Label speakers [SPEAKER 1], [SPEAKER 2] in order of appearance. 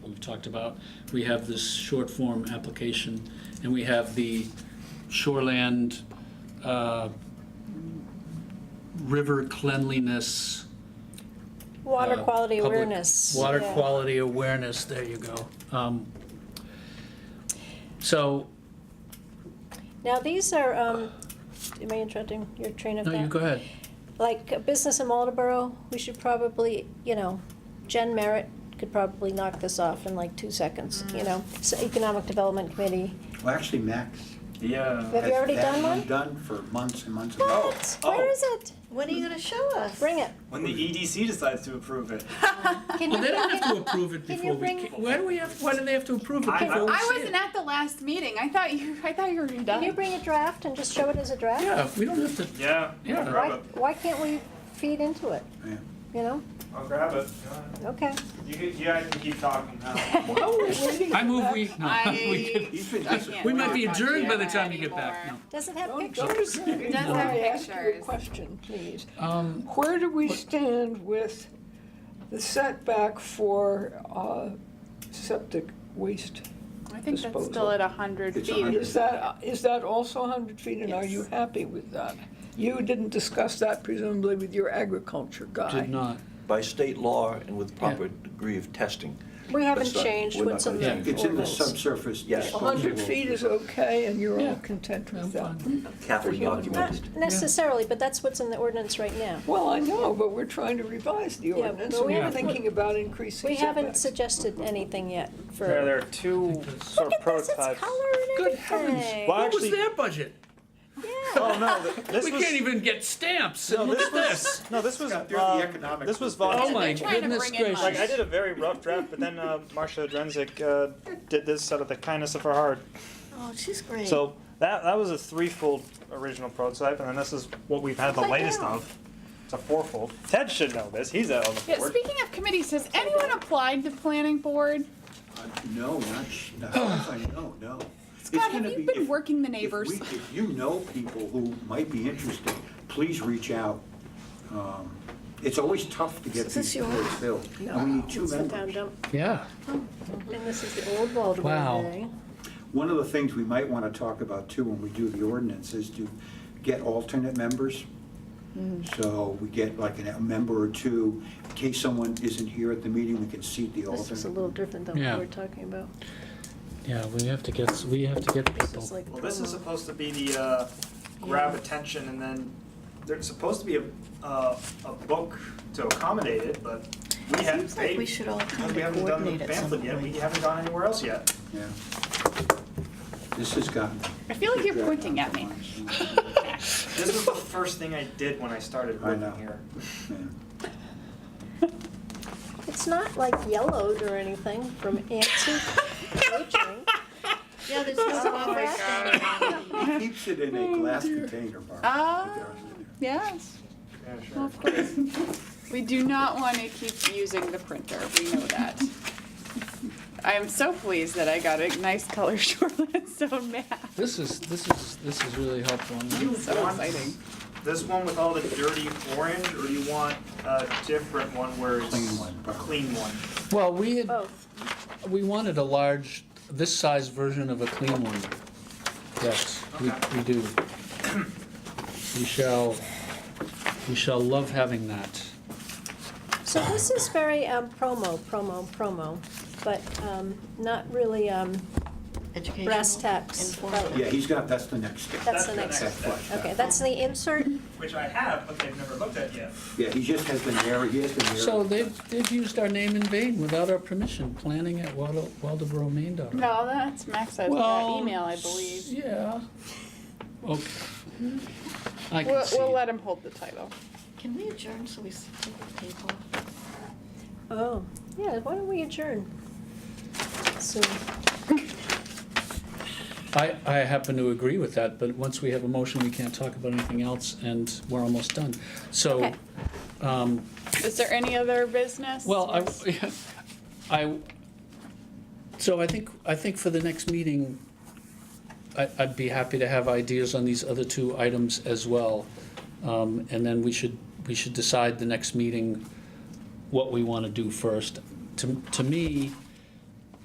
[SPEAKER 1] talked about. We have this short form application, and we have the shoreland uh, river cleanliness.
[SPEAKER 2] Water
[SPEAKER 1] uh,
[SPEAKER 2] quality
[SPEAKER 1] public-
[SPEAKER 2] awareness.
[SPEAKER 1] Water
[SPEAKER 2] yeah.
[SPEAKER 1] quality awareness, there you go. Um, So,
[SPEAKER 2] Now, these are, um, am I interrupting your train of
[SPEAKER 1] no,
[SPEAKER 2] thought?
[SPEAKER 1] you go ahead.
[SPEAKER 2] Like, a business in Waldeboro, we should probably, you know, Jen Merritt could probably knock this off in like two seconds, you know? So Economic Development Committee.
[SPEAKER 3] Well, actually, Max.
[SPEAKER 2] Have
[SPEAKER 4] Yeah.
[SPEAKER 2] you
[SPEAKER 3] has
[SPEAKER 2] already
[SPEAKER 3] that
[SPEAKER 2] done one?
[SPEAKER 3] Done for months and months. and months.
[SPEAKER 2] What? Where
[SPEAKER 4] oh.
[SPEAKER 2] is it?
[SPEAKER 5] When are you gonna show us?
[SPEAKER 2] Bring it.
[SPEAKER 4] When the EDC decides to approve it.
[SPEAKER 2] Can
[SPEAKER 1] Well, Oh,
[SPEAKER 2] you
[SPEAKER 1] they don't
[SPEAKER 2] bring
[SPEAKER 1] have
[SPEAKER 2] it?
[SPEAKER 1] to approve it
[SPEAKER 2] Can you
[SPEAKER 1] before we,
[SPEAKER 2] bring-
[SPEAKER 1] ca- why do we have, why do they have to approve it
[SPEAKER 4] I-
[SPEAKER 1] before we see
[SPEAKER 6] I
[SPEAKER 1] it?
[SPEAKER 6] wasn't at the last meeting. I thought you. I thought you were done.
[SPEAKER 2] Can you bring a draft and just show it as a draft?
[SPEAKER 1] Yeah, we don't have to,
[SPEAKER 4] Yeah.
[SPEAKER 1] Yeah.
[SPEAKER 4] I'll
[SPEAKER 2] Why,
[SPEAKER 4] grab it.
[SPEAKER 2] why can't we feed into it?
[SPEAKER 3] Yeah.
[SPEAKER 2] You know?
[SPEAKER 4] I'll grab it. Go ahead.
[SPEAKER 2] Okay.
[SPEAKER 4] You, can- you guys can keep talking now.
[SPEAKER 1] I move we, no, we
[SPEAKER 6] I-
[SPEAKER 1] could.
[SPEAKER 3] He's been
[SPEAKER 6] I
[SPEAKER 3] just
[SPEAKER 6] can't
[SPEAKER 1] We
[SPEAKER 6] wait
[SPEAKER 1] might be
[SPEAKER 6] to talk to
[SPEAKER 1] adjourned by the
[SPEAKER 6] about
[SPEAKER 1] time
[SPEAKER 6] it
[SPEAKER 1] you get back.
[SPEAKER 6] anymore.
[SPEAKER 2] Does it have pictures?
[SPEAKER 6] It does have
[SPEAKER 7] Let me ask you a
[SPEAKER 6] pictures.
[SPEAKER 7] question, please.
[SPEAKER 1] No. Um,
[SPEAKER 7] Where do we stand with the setback for uh, septic waste?
[SPEAKER 6] I think that's
[SPEAKER 7] Disposal.
[SPEAKER 6] still at hundred
[SPEAKER 3] It's
[SPEAKER 6] feet.
[SPEAKER 3] 100.
[SPEAKER 7] Is that, is that also 100 feet, and are you
[SPEAKER 6] Yes.
[SPEAKER 7] happy with that? You didn't discuss that presumably with your agriculture guy.
[SPEAKER 1] did not.
[SPEAKER 8] by state law and with proper degree of testing.
[SPEAKER 2] We haven't
[SPEAKER 8] That's not-
[SPEAKER 2] changed
[SPEAKER 8] we're not
[SPEAKER 2] what's in
[SPEAKER 8] gonna
[SPEAKER 2] the
[SPEAKER 8] change.
[SPEAKER 3] It's in the
[SPEAKER 2] ordinance.
[SPEAKER 3] subsurface.
[SPEAKER 8] Yeah.
[SPEAKER 3] disposal.
[SPEAKER 7] 100 feet is okay, and you're
[SPEAKER 1] Yeah.
[SPEAKER 7] all content
[SPEAKER 1] I'm
[SPEAKER 7] with that?
[SPEAKER 1] fine.
[SPEAKER 8] Carefully
[SPEAKER 2] Not
[SPEAKER 8] documented.
[SPEAKER 2] necessarily, but that's what's in the ordinance right now.
[SPEAKER 7] Well, I know, but we're trying to revise the
[SPEAKER 2] but
[SPEAKER 7] ordinance,
[SPEAKER 2] we
[SPEAKER 7] and we're
[SPEAKER 2] haven't-
[SPEAKER 7] thinking about increasing
[SPEAKER 2] We haven't
[SPEAKER 7] setbacks.
[SPEAKER 2] suggested anything yet for.
[SPEAKER 4] There, there are two sort
[SPEAKER 2] Look
[SPEAKER 4] of
[SPEAKER 2] at this, it's
[SPEAKER 4] prototypes.
[SPEAKER 2] color and
[SPEAKER 1] Good
[SPEAKER 2] everything.
[SPEAKER 1] heavens,
[SPEAKER 4] Well,
[SPEAKER 1] what was
[SPEAKER 4] actually-
[SPEAKER 1] their budget?
[SPEAKER 2] Yeah.
[SPEAKER 4] Oh no, th- this
[SPEAKER 1] We
[SPEAKER 4] was
[SPEAKER 1] can't even get stamps,
[SPEAKER 4] no,
[SPEAKER 1] and look at
[SPEAKER 4] this
[SPEAKER 1] this.
[SPEAKER 4] was no, this was
[SPEAKER 3] Scott, there's the
[SPEAKER 4] um,
[SPEAKER 3] economic
[SPEAKER 4] this was
[SPEAKER 1] Oh
[SPEAKER 4] volunteer.
[SPEAKER 1] my
[SPEAKER 6] they're trying to
[SPEAKER 1] goodness
[SPEAKER 6] bring in
[SPEAKER 4] Like I
[SPEAKER 1] gracious.
[SPEAKER 4] did a very rough draft, but then uh, Marsha Drenzik uh, did this out of the kindness of her heart.
[SPEAKER 5] Oh, she's great.
[SPEAKER 4] So that that was a threefold original prototype, and then this is what we've had the
[SPEAKER 5] Upside
[SPEAKER 4] latest
[SPEAKER 5] down.
[SPEAKER 4] of. It's a fourfold. Ted should know this. He's out on the
[SPEAKER 6] Yeah,
[SPEAKER 4] board.
[SPEAKER 6] speaking of committees, has anyone applied to planning board?
[SPEAKER 3] Uh, No, not, sh- no, I know, no. It's
[SPEAKER 6] Scott, have
[SPEAKER 3] gonna
[SPEAKER 6] you
[SPEAKER 3] be-
[SPEAKER 6] been
[SPEAKER 3] if-
[SPEAKER 6] working the
[SPEAKER 3] if
[SPEAKER 6] neighbors?
[SPEAKER 3] we- If you know people who might be interested, please reach out. Um, It's always tough to get
[SPEAKER 5] Is this
[SPEAKER 3] these boards
[SPEAKER 5] yours?
[SPEAKER 3] filled. And we need two
[SPEAKER 2] Sit down,
[SPEAKER 3] members.
[SPEAKER 2] dump.
[SPEAKER 1] Yeah.
[SPEAKER 2] And this is the old Baldwin
[SPEAKER 1] Wow.
[SPEAKER 2] thing.
[SPEAKER 3] One of the things we might want to talk about too when we do the ordinance is to get alternate members.
[SPEAKER 2] Mm-hmm.
[SPEAKER 3] So we get like an- a member or two, in case someone isn't here at the meeting, we can seat the
[SPEAKER 2] This is a
[SPEAKER 3] alternate.
[SPEAKER 2] little different than what
[SPEAKER 1] Yeah.
[SPEAKER 2] we're talking about.
[SPEAKER 1] Yeah, we have to get, we have to get
[SPEAKER 2] This is
[SPEAKER 1] people.
[SPEAKER 2] like
[SPEAKER 4] Well, this is
[SPEAKER 2] promo.
[SPEAKER 4] supposed to be the uh, grab attention, and then there's supposed to be a uh, a book to accommodate it, but we haven't.
[SPEAKER 5] Seems like we should all
[SPEAKER 4] because
[SPEAKER 5] kind
[SPEAKER 4] we
[SPEAKER 5] of
[SPEAKER 4] haven't done the
[SPEAKER 5] coordinate at some
[SPEAKER 4] pamphlet yet. We
[SPEAKER 5] point.
[SPEAKER 4] haven't gone anywhere else yet.
[SPEAKER 3] Yeah. This has gotten.
[SPEAKER 6] I feel like you're pointing at me.
[SPEAKER 4] This was the first thing I did when I started
[SPEAKER 3] I
[SPEAKER 4] working
[SPEAKER 3] know.
[SPEAKER 4] here.
[SPEAKER 3] Yeah.
[SPEAKER 2] It's not like yellowed or anything from antique aging.
[SPEAKER 5] Yeah, there's no office.
[SPEAKER 3] He keeps it in a glass container, Barbara.
[SPEAKER 6] Oh, Ah.
[SPEAKER 3] It goes in
[SPEAKER 6] Yes,
[SPEAKER 4] Yeah, sure.
[SPEAKER 6] of course. We do not want to keep using the printer. We know that. I am so pleased that I got a nice color shoreline zone map.
[SPEAKER 1] This is, this is, this is really helpful.
[SPEAKER 4] You
[SPEAKER 6] So
[SPEAKER 4] want
[SPEAKER 6] exciting.
[SPEAKER 4] This one with all the dirty orange, or you want a different one where it's
[SPEAKER 3] Clean one.
[SPEAKER 4] a clean one?
[SPEAKER 1] Well, we had,
[SPEAKER 2] Both.
[SPEAKER 1] we wanted a large, this size version of a clean one. Yes, we,
[SPEAKER 4] Okay.
[SPEAKER 1] we do. We shall, we shall love having that.
[SPEAKER 2] So this is very um, promo, promo, promo, but um, not really, um,
[SPEAKER 5] Educational.
[SPEAKER 2] Brass tacks.
[SPEAKER 5] informative.
[SPEAKER 3] there. Yeah, he's got, that's the next step.
[SPEAKER 2] that's the next,
[SPEAKER 3] That flash back.
[SPEAKER 2] okay, that's the insert.
[SPEAKER 4] Which I have, but they've never looked at yet.
[SPEAKER 3] Yeah, he just has the narrative, he has the narrative.
[SPEAKER 1] So they've, they've used our name in vain without our permission, planning at Waldo- waldeboromaine.org.
[SPEAKER 6] No, that's Max. I
[SPEAKER 1] Well,
[SPEAKER 6] that email, I believe.
[SPEAKER 1] Yeah. Okay. I can
[SPEAKER 6] We'll,
[SPEAKER 1] see.
[SPEAKER 6] we'll let him hold the title.
[SPEAKER 5] Can we adjourn so we sit at the table?
[SPEAKER 2] Oh, yeah, why don't we adjourn? Soon.
[SPEAKER 1] I, I happen to agree with that, but once we have a motion, we can't talk about anything else, and we're almost done. So,
[SPEAKER 2] Okay.
[SPEAKER 1] um,
[SPEAKER 6] Is there any other business?
[SPEAKER 1] well, I, I, so I think, I think for the next meeting, I, I'd be happy to have ideas on these other two items as well. Um, and then we should, we should decide the next meeting what we want to do first. To, to me,